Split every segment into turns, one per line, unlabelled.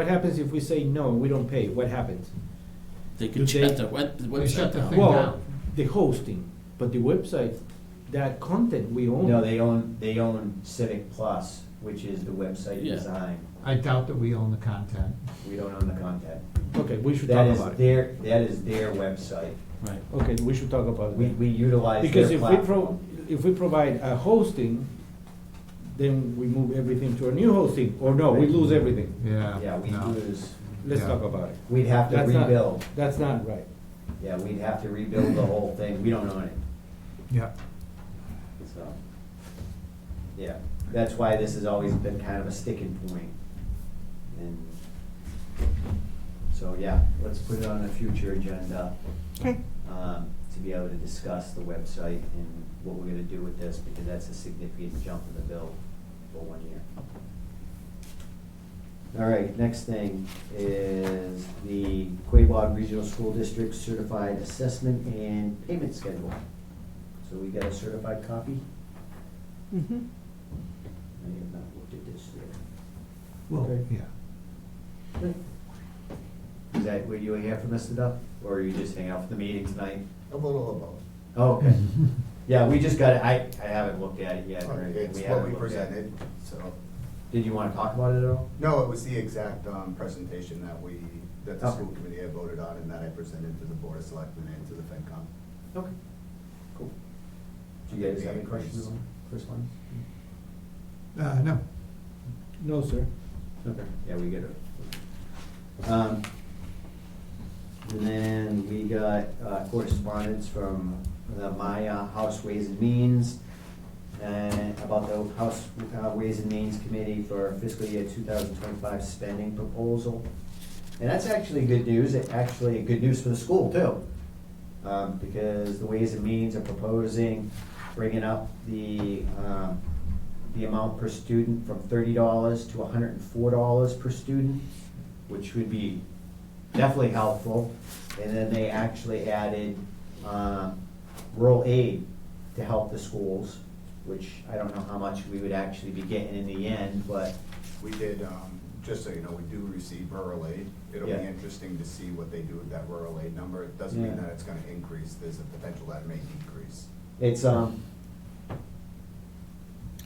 What happens if we say no, we don't pay? What happens?
They
Do
could shut
they-
the web, the
They shut
website
the
down.
thing
Well,
down.
The hosting, but the website, that content we own.
No, they own, they own Civic Plus, which is the website
Yeah.
design.
I doubt that we own the content.
We don't own the content.
Okay, we should
That
talk
is
about it.
their, that is their website.
Right,
Okay, we should talk about
We,
it.
we utilize
Because
their
if we pro,
platform.
if we provide a hosting, then we move everything to a new hosting, or no, we lose everything.
Yeah.
Yeah, we
no.
lose,
Let's
Yeah.
talk about it.
we'd have to
That's not-
rebuild.
That's not right.
Yeah, we'd have to rebuild the whole thing. We don't own it,
Yeah.
so. Yeah, that's why this has always been kind of a sticking point. And so, yeah, let's put it on a future agenda.
Okay.
um, to be able to discuss the website and what we're gonna do with this, because that's a significant jump in the bill for one year. All right, next thing is the Quabog Regional School District Certified Assessment and Payment Schedule. So we got a certified copy?
Mm-hmm.
I have not looked at this yet.
Well, yeah.
Is that, were you here for Mr. Duff, or are you just hanging out for the meeting tonight?
A little of both.
Oh, okay. Yeah, we just got, it. I, I haven't looked at it yet. or
It's
we
what
haven't
we
looked at it.
presented, so.
Did you wanna talk about it at all?
No, it was the exact um, presentation that we, that the
Okay.
school committee had voted on and that I presented to the Board of Selectmen and to the FinCom.
Okay, cool. Do you guys have any questions on the first one?
Uh, no.
No, sir.
Okay, yeah, we get it. Um, And then we got uh, correspondence from the Maya House Ways and Means and about the House uh, Ways and Means Committee for fiscal year two thousand twenty-five spending proposal. And that's actually good news, It actually good news for the school too. um, because the Ways and Means are proposing bringing up the, um, the amount per student from thirty dollars to hundred and four dollars per student, which would be definitely helpful. And then they actually added, um, rural aid to help the schools, which I don't know how much we would actually be getting in the end, but,
We did, um, just so you know, we do receive rural aid. It'll be
Yeah.
interesting to see what they do with that rural aid number. It doesn't mean
Yeah.
that it's gonna increase, there's a potential that it may decrease.
it's, um,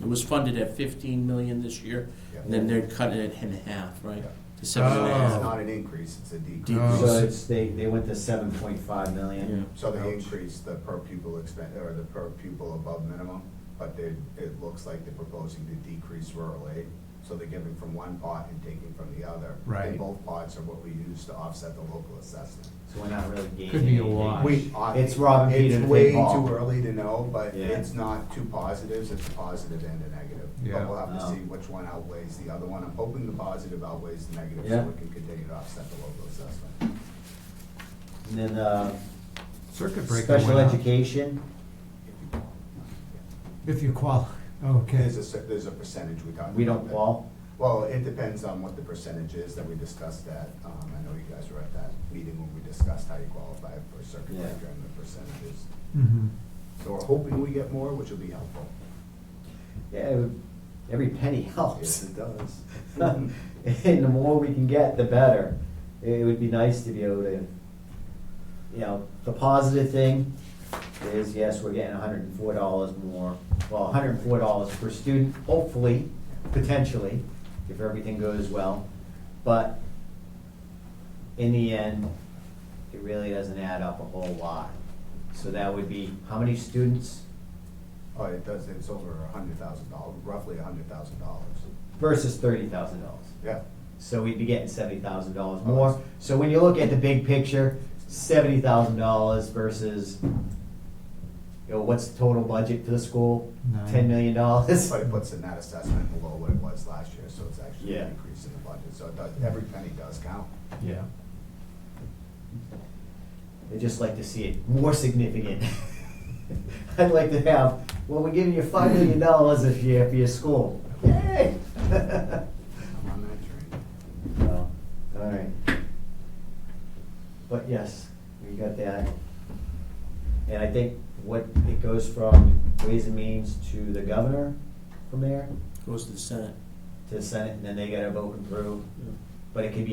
it was funded at fifteen million this year,
Yeah.
and then they're cutting it in half, right?
Yeah.
To seven and a
Oh.
It's
half.
not an increase, it's a
Decrease.
decrease.
so it's, they, they went to seven point five
Yeah.
million.
So they
Ouch.
increased the per pupil expen or the per pupil above minimum, but they, it looks like they're proposing to decrease rural aid. So they're giving from one pot and taking from the other.
Right.
And both pots are what we use to offset the local assessment.
So we're not really gaining.
Could be a
anything.
wash.
We, uh,
It's Robin Peter to
It's
pay
way
Paul.
too early to know, but
Yeah.
it's not two positives, it's a positive and a negative.
Yeah.
But we'll have to
Oh.
see which one outweighs the other one. I'm hoping the positive outweighs the negative,
Yeah.
so we can continue to offset the local assessment.
And then, uh,
Circuit breaker.
special
went up.
education,
If you want.
If you qual, okay.
There's a, cer- there's a percentage we got.
we don't fall.
Well, it depends on what the percentage is that we discussed at, um, I know you guys were at that meeting when we discussed how you qualify for circuit
Yeah.
breaker and the percentages.
Mhm.
So we're hoping we get more, which will be helpful.
Yeah, every penny helps.
it does.
And
Oh,
the more we can get, the better. It would be nice to be able to, you know, the positive thing is, yes, we're getting hundred and four dollars more, well, hundred and four dollars per student, hopefully, potentially, if everything goes well. But in the end, it really doesn't add up a whole lot. So that would be, how many students
Oh, it does, it's over a hundred thousand dollars, roughly a hundred thousand dollars.
versus thirty thousand dollars?
Yeah,
So we'd be getting seventy thousand dollars
Oh,
more.
that's-
So when you look at the big picture, seventy thousand dollars versus, you know, what's the total budget for the school?
Nine.
Ten million dollars?
but it puts in that assessment below what it was last year, so it's actually
Yeah.
an increase in the budget, so it does, every penny does count.
Yeah.
I'd just like to see it more significant. I'd like to have, well, we're giving you five million dollars this year for your school. Yay!
I'm on that train.
Well, all right. But yes, we got that. And I think what, it goes from Ways and Means to the governor from there,
Goes to the Senate.
to the Senate, and then they gotta vote and approve.
Yeah.
but it could be